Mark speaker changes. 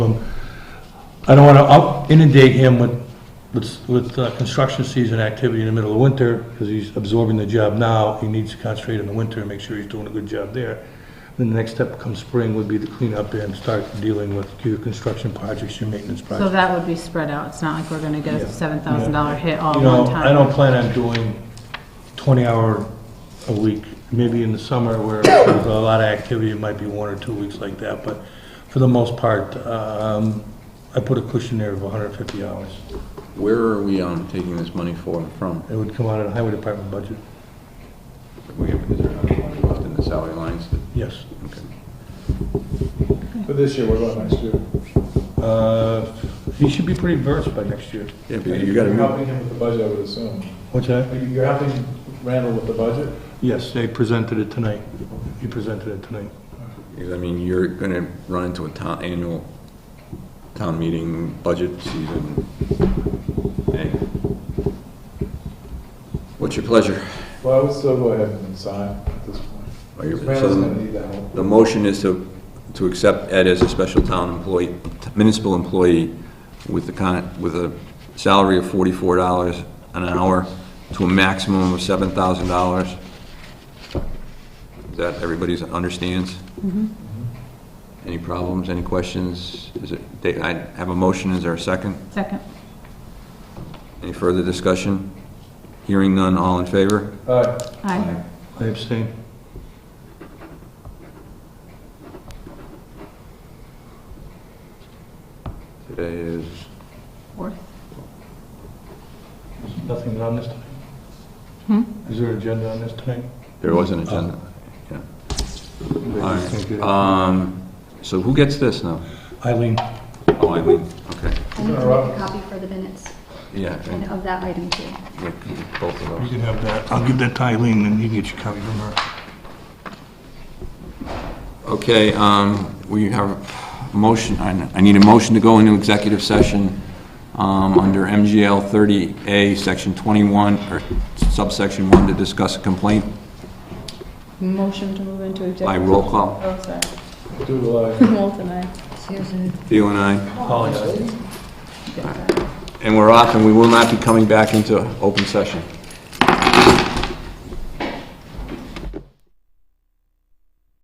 Speaker 1: I don't want to up inundate him with, with, with uh, construction season activity in the middle of winter, because he's absorbing the job now, he needs to concentrate in the winter and make sure he's doing a good job there. Then the next step come spring would be to clean up and start dealing with your construction projects, your maintenance
Speaker 2: So
Speaker 1: projects.
Speaker 2: that would be spread out, it's not like we're gonna go
Speaker 1: Yeah.
Speaker 2: seven thousand dollar hit all
Speaker 1: You
Speaker 2: at
Speaker 1: know,
Speaker 2: one
Speaker 1: I don't
Speaker 2: time.
Speaker 1: plan on doing twenty hour a week, maybe in the summer where there's a lot of activity, it might be one or two weeks like that, but for the most part, um, I put a cushion there of hundred and fifty hours.
Speaker 3: Where are we um, taking this money for, from?
Speaker 1: It would come out of the highway department budget,
Speaker 3: We have, is there enough money left in the salary lines? that-
Speaker 1: yes.
Speaker 3: okay.
Speaker 4: For this year, what about next year?
Speaker 1: Uh, He should be pretty versed by next year.
Speaker 3: Yeah, but you gotta move,
Speaker 4: You're helping him with the budget, I would assume.
Speaker 1: What's that?
Speaker 4: Are you- You're helping Randall with the budget?
Speaker 1: Yes, they presented it tonight. He presented it tonight.
Speaker 3: I mean, you're gonna run into a town, annual town meeting budget season thing. What's your pleasure?
Speaker 4: Well, I would still go ahead and sign at this point.
Speaker 3: Are you- so
Speaker 4: Randall's
Speaker 3: the-
Speaker 4: gonna need that help.
Speaker 3: The motion is to, to accept Ed as a special town employee, municipal employee with the con, with a salary of forty-four dollars an hour to a maximum of seven thousand dollars. That everybody's understands?
Speaker 2: Mm-hmm.
Speaker 3: Any problems, any questions? Is it, they- I have a motion, is there a second?
Speaker 2: Second,
Speaker 3: Any further discussion? Hearing none, all in favor?
Speaker 4: All right.
Speaker 2: aye.
Speaker 1: I abstain.
Speaker 3: Today is,
Speaker 2: Fourth.
Speaker 1: Nothing on this tonight? Is there an agenda on this tonight?
Speaker 3: there was an agenda. Yeah.
Speaker 1: They
Speaker 3: All
Speaker 1: just can't get
Speaker 3: right,
Speaker 1: it.
Speaker 3: um, so who gets this now?
Speaker 1: Eileen,
Speaker 3: Oh, Eileen, okay,
Speaker 5: I need to make a copy for the minutes
Speaker 3: yeah,
Speaker 5: and
Speaker 3: and
Speaker 5: of that item too.
Speaker 3: we can do both of
Speaker 1: you
Speaker 3: those.
Speaker 1: can have that. I'll give that to Eileen, and you can get your copy from her.
Speaker 3: Okay, um, we have a motion, I I need a motion to go into executive session, um, under MGL thirty A, section twenty-one, or subsection one, to discuss a complaint
Speaker 6: Motion to move into
Speaker 3: by
Speaker 6: executive.
Speaker 3: roll call.
Speaker 6: Oh, sorry.
Speaker 4: Do, uh,
Speaker 6: Moulton, aye.
Speaker 3: Theo and I,
Speaker 1: Apologize.
Speaker 3: and we're off, and we will not be coming back into open session.